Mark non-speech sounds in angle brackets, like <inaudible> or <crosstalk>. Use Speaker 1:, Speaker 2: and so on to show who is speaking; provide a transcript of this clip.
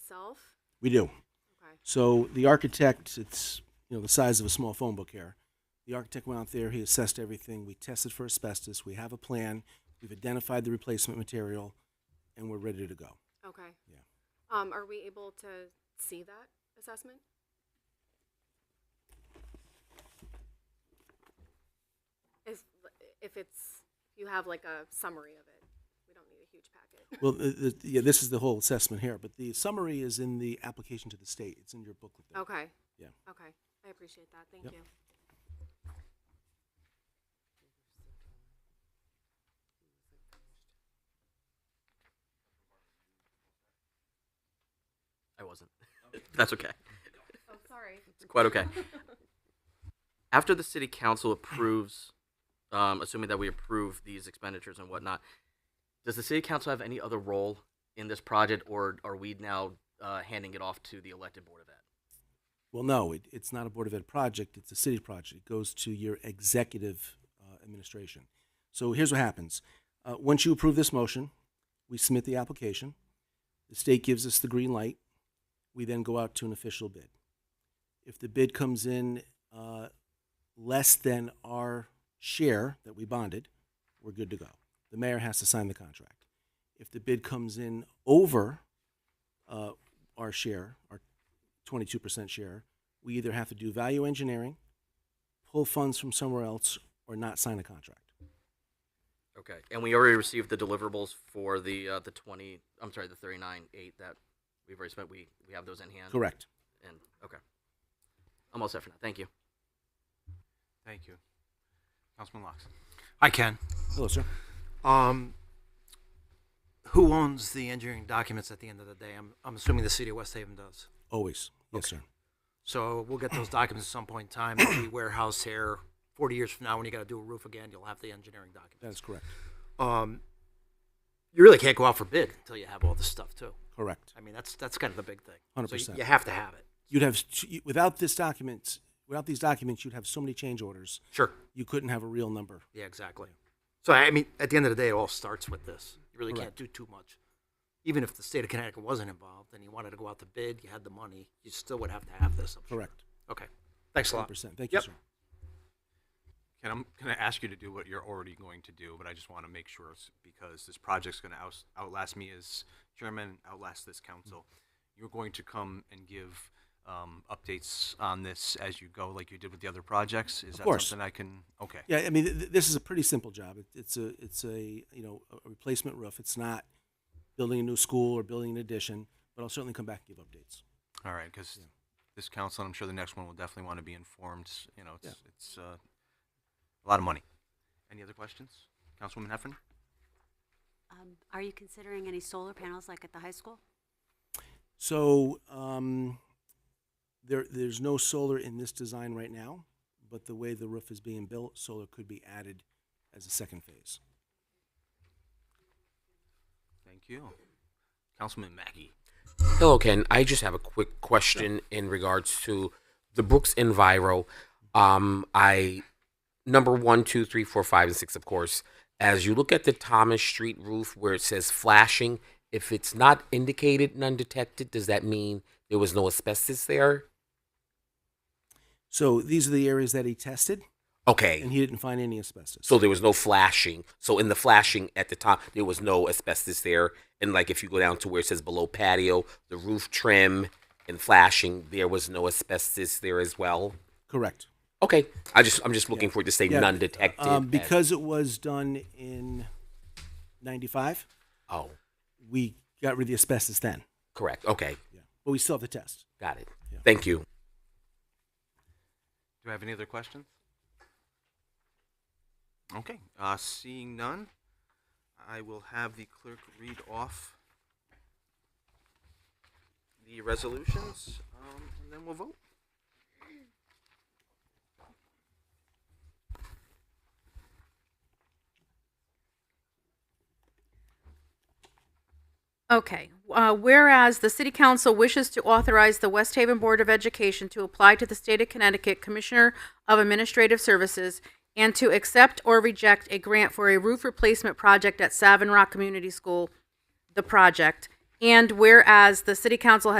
Speaker 1: itself?
Speaker 2: We do.
Speaker 1: Okay.
Speaker 2: So the architect, it's, you know, the size of a small phone book here. The architect went out there, he assessed everything, we tested for asbestos, we have a plan, we've identified the replacement material, and we're ready to go.
Speaker 1: Okay.
Speaker 2: Yeah.
Speaker 1: Um, are we able to see that assessment? If, if it's, if you have like a summary of it, we don't need a huge packet.
Speaker 2: Well, the, the, yeah, this is the whole assessment here, but the summary is in the application to the state, it's in your booklet there.
Speaker 1: Okay,
Speaker 2: Yeah.
Speaker 1: okay. I appreciate that. Thank
Speaker 2: Yep.
Speaker 1: you.
Speaker 3: I wasn't. <laughs> That's okay.
Speaker 1: Oh, sorry.
Speaker 3: It's quite okay. After the city council approves, um, assuming that we approve these expenditures and whatnot, does the city council have any other role in this project, or are we now uh, handing it off to the elected board of ed?
Speaker 2: Well, no, it, it's not a Board of Ed project, it's a city project. It goes to your executive uh, administration. So here's what happens. Uh, once you approve this motion, we submit the application. The state gives us the green light. We then go out to an official bid. If the bid comes in uh, less than our share that we bonded, we're good to go. The mayor has to sign the contract. If the bid comes in over uh, our share, our 22% share, we either have to do value engineering, pull funds from somewhere else, or not sign a contract.
Speaker 3: Okay, and we already received the deliverables for the uh, the twenty. I'm sorry, the thirty nine eight that we've already spent. We we have those in hand.
Speaker 2: Correct.
Speaker 3: And okay, I'm all set for now. Thank you.
Speaker 4: Thank you. Councilman Locks.
Speaker 5: I can.
Speaker 2: Hello, sir.
Speaker 5: Um, who owns the engineering documents at the end of the day? I'm, I'm assuming the city of West Haven does.
Speaker 2: Always. Yes, sir.
Speaker 5: So we'll get those documents at some point in time. They'll be warehouse here. 40 years from now, when you got to do a roof again, you'll have the engineering
Speaker 2: That is
Speaker 5: documents.
Speaker 2: correct.
Speaker 5: Um, you really can't go out for bid until you have all this stuff too.
Speaker 2: Correct.
Speaker 5: I mean, that's that's kind of the big thing. So
Speaker 2: 100%.
Speaker 5: you have to have it.
Speaker 2: You'd have, without this document, without these documents, you'd have so many change orders,
Speaker 5: Sure.
Speaker 2: you couldn't have a real number.
Speaker 5: Yeah, exactly. So I mean, at the end of the day, it all starts with this. You really
Speaker 2: Correct.
Speaker 5: can't do too much. Even if the state of Connecticut wasn't involved and you wanted to go out to bid, you had the money, you still would have to have this. I'm sure.
Speaker 2: Correct.
Speaker 5: Okay. Thanks a lot.
Speaker 2: 100%. Thank you,
Speaker 5: Yep.
Speaker 2: sir.
Speaker 4: Ken, I'm going to ask you to do what you're already going to do, but I just want to make sure it's because this project's going to out, outlast me as chairman, outlast this council.
Speaker 2: Mm-hmm.
Speaker 4: You're going to come and give um, updates on this as you go, like you did with the other projects. Is
Speaker 2: Of
Speaker 4: that
Speaker 2: course.
Speaker 4: something I can? Okay.
Speaker 2: Yeah, I mean, th- th- this is a pretty simple job. It- It's a, it's a, you know, a replacement roof. It's not building a new school or building an addition, but I'll certainly come back and give updates.
Speaker 4: All right, because
Speaker 2: Yeah.
Speaker 4: this council, and I'm sure the next one will definitely want to be informed. You know, it's,
Speaker 2: Yeah.
Speaker 4: it's uh, a lot of money. Any other questions? Councilwoman Heffernan?
Speaker 6: Um, Are you considering any solar panels like at the high school?
Speaker 2: So um, there, there's no solar in this design right now, but the way the roof is being built, solar could be added as a second phase.
Speaker 4: Thank you. Councilman Mackey.
Speaker 7: Hello, Ken. I just have a quick question in regards to the Brooks Enviro. Um, I number one, two, three, four, five, and six, of course. As you look at the Thomas Street roof where it says flashing, if it's not indicated and undetected, does that mean there was no asbestos there?
Speaker 2: So these are the areas that he tested, and
Speaker 7: Okay.
Speaker 2: he didn't find any asbestos.
Speaker 7: So there was no flashing. So in the flashing at the top, there was no asbestos there. And like if you go down to where it says below patio, the roof trim and flashing, there was no asbestos there as well.
Speaker 2: Correct.
Speaker 7: Okay, I just I'm just looking
Speaker 2: Yeah.
Speaker 7: for it to say
Speaker 2: Yeah,
Speaker 7: none detected.
Speaker 2: Um,
Speaker 7: as-
Speaker 2: because it was done in 95,
Speaker 7: oh,
Speaker 2: we got rid of the asbestos then.
Speaker 7: correct. Okay,
Speaker 2: Yeah. But we still have the test.
Speaker 7: got it.
Speaker 2: Yeah.
Speaker 7: Thank you.
Speaker 4: Do I have any other questions? Okay, uh, seeing none, I will have the clerk read off the resolutions, um, and then we'll vote.
Speaker 8: Okay, uh, whereas the City Council wishes to authorize the West Haven Board of Education to apply to the State of Connecticut Commissioner of Administrative Services and to accept or reject a grant for a roof replacement project at Savin Rock Community School, the project. And whereas the City Council has